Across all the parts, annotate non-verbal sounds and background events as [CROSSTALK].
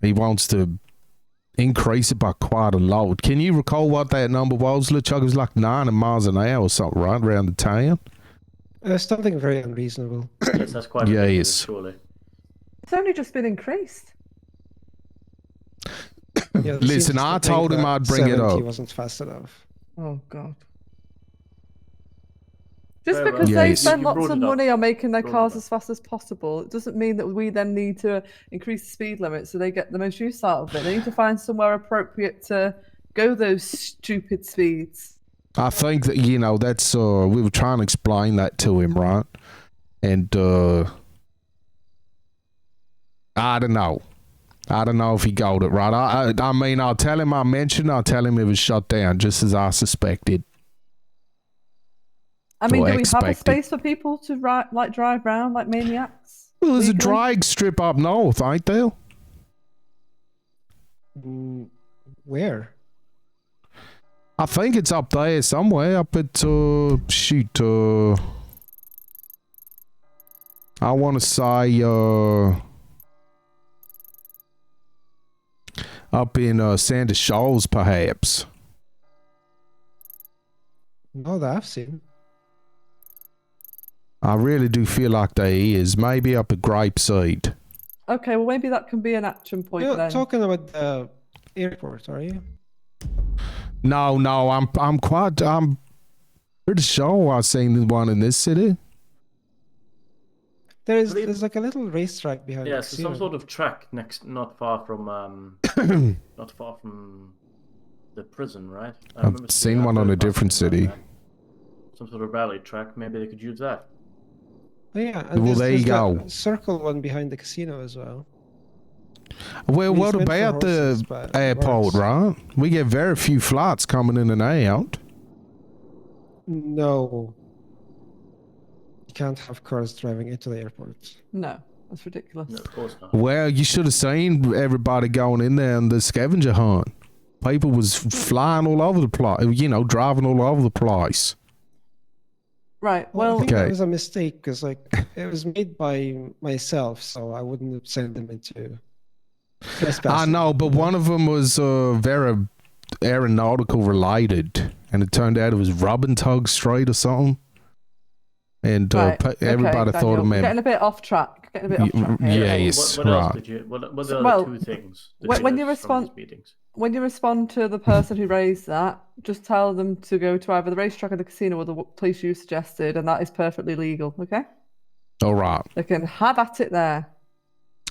He wants to increase it by quite a lot. Can you recall what that number was? Luchuk it was like 90 miles an hour or something, right? Around the town? That's nothing Uh, very [CLEARS THROAT] unreasonable. Yes, that's quite Yeah, ridiculous, he is. surely. It's only just been increased. You know, it Listen, seems to I think told him that I'd bring it 70 up. wasn't fast enough. Oh God. Just Very well. because Yeah, they it's- spend You lots brought of it up. money on making their Brought it cars up. as fast as possible, it doesn't mean that we then need to increase the speed limit so they get the most use out of it. They need to find somewhere appropriate to go those stupid speeds. I think that you know that's uh we were trying to explain that to him, right? And uh I don't know. I don't know if he got it right. I, I I mean, I'll tell him I mentioned. I'll tell him it was shut down, just as I suspected. I mean, Or do we have a expected. space for people to ri like drive round like maniacs? Well, there's a legally? drag strip up north, ain't there? Mm, Where? I think it's up there somewhere. Up at uh, shoot. Uh, I want to say uh, up in uh, Sanders Shoals, perhaps. No, that I've seen. I really do feel like there is. Maybe up at Grape Seed. Okay, well maybe that can be an action point You're then. talking about the airport, are you? No, no, I'm I'm quite I'm pretty sure I've seen the one in this city. There is Believe- there's like a little racetrack behind. Yeah, so some Xero. sort of track next, not far from, [COUGHS] um, not far from the prison, right? I I've remember seeing seen that one on very a different fast thing city. around there. Some sort of rally track. Maybe they could use that. Oh, yeah, and Well, there's- there you there's that go. Circle one behind the casino as well. Well, It's what meant for about horses, the but airport, works. right? We get very few flights coming in and out. No. You can't have cars driving into the airport. No, that's ridiculous. No, of course not. Well, you should have seen everybody going in there on the scavenger hunt. People was flying all over the place, you know, driving all over the place. Right. Well, Oh, I Well, think that Okay. was a mistake because like it was made by myself, so I wouldn't send them into. I trespassing. know, but one of them was uh, very aeronautical related, and it turned out it was Robin Tug Strait or something. And uh, right. pe- okay, everybody thought Daniel, it we're meant Getting a bit off track. Getting a bit Y- off track. here. yeah, what- yes, What, what else right. did you? What, what are So- the well, two things? that when- you when noticed you from these respond- meetings? when you respond to the person who raised that, just tell them to go to either the racetrack or the casino or the w- place you suggested, and that is perfectly legal. Okay, all right, they can have at it there.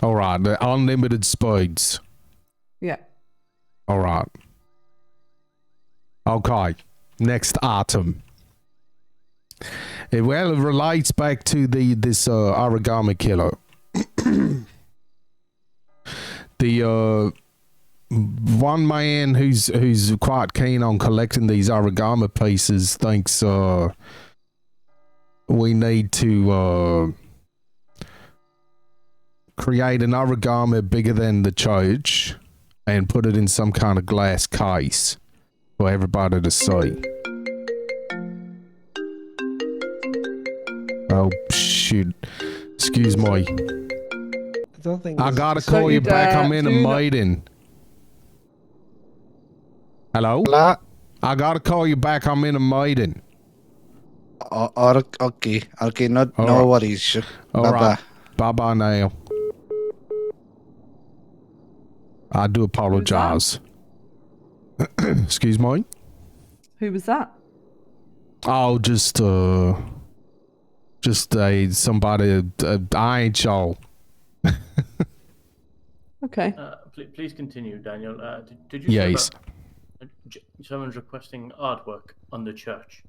all right, the unlimited speeds. Yeah. All right. Okay. Next item. It, well, it relates back to the this uh, origami killer. [COUGHS] the uh, one man who's who's quite keen on collecting these origami pieces thinks uh, we need to uh, create an origami bigger than the church and put it in some kind of glass case for everybody to see. Oh shoot! Excuse me. I don't think. I this- gotta this- Don't call you you back. dare. I'm in a Do not- meeting. Hello. Hello? I gotta call you back. I'm in a meeting. O- or, okay, okay, no, All no right. worries. sure. All Bye-bye. right. Bye bye now. I do apologize. [CLEARS THROAT] Excuse me. Who was that? Oh, just uh, just uh, somebody. Uh, I ain't y'all. Okay. Uh, please, please continue, Daniel. Uh, did, did you? hear Yes. about- uh, j- Someone's requesting artwork on the church.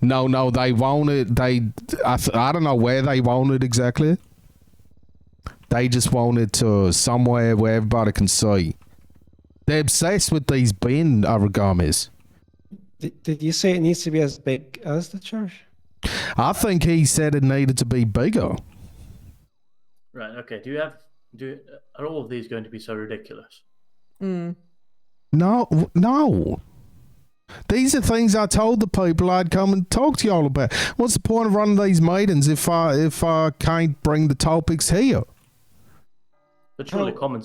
No, no, they wanted. They, I, th- I don't know where they wanted exactly. They just wanted to somewhere where everybody can see. They're obsessed with these bin origamis. Did, did you say it needs to be as big as the church? I think he said it needed to be bigger. Right. Okay. Do you have? Do are all of these going to be so ridiculous? Mm. No, w- no. These are things I told the people I'd come and talk to y'all about. What's the point of running these meetings if I if I can't bring the topics here? But surely Well- common